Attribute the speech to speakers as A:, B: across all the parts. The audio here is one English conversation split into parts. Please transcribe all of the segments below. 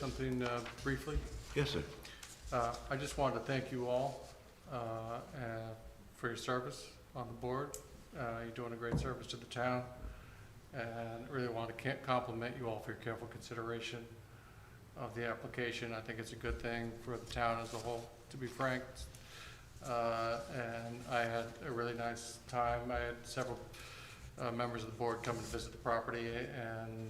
A: Something uh, briefly.
B: Yes, sir.
A: Uh, I just wanted to thank you all uh, uh, for your service on the board. Uh, You're doing a great service to the town, and really want to ca- compliment you all for your careful consideration of the application. I think it's a good thing for the town as a whole, to be frank. Uh, And I had a really nice time. I had several uh, members of the board come and visit the property, and,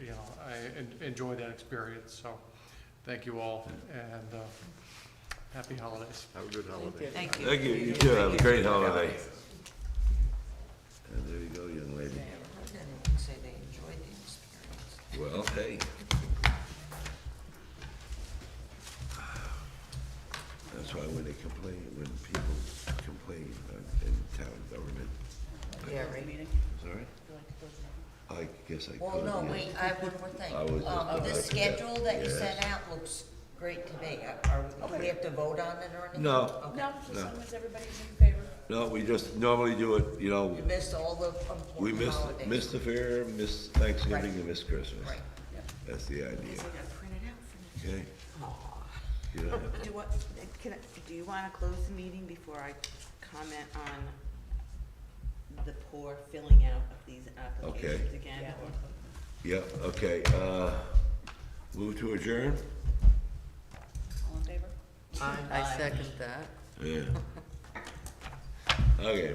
A: you know, I en- enjoyed that experience, so Thank you all, and uh, happy holidays.
B: Have a good holiday.
C: Thank you.
B: Thank you, you too, have a great holiday. And there you go, young lady.
C: I haven't heard anyone say they enjoyed the experience.
B: Well, hey. That's why when they complain, when people complain uh, in town government,
C: Yeah, right.
B: sorry? I guess I could.
C: Well, no,
B: yeah.
C: wait, I have one more thing.
B: I was just
C: Um,
B: about
C: the
B: to-
C: schedule that you
B: yes.
C: sent out looks great to me. Are, we- do we have to vote on it or anything?
B: No.
C: Okay.
D: No,
B: No.
D: as long as everybody's in favor.
B: No, we just normally do it, you know,
C: You missed all the
B: we
C: important
B: miss,
C: holidays.
B: miss the fair, miss Thanksgiving,
C: Right.
B: and miss Christmas.
C: Right.
B: That's the idea,
E: I gotta print it out for
B: okay? You don't have to-
E: me. Do what, can, I- do you wanna close the meeting before I comment on the poor filling out of these applications again?
B: Yeah, okay, uh, move to adjourn?
D: All in favor?
F: I second that.
B: Yeah. Okay,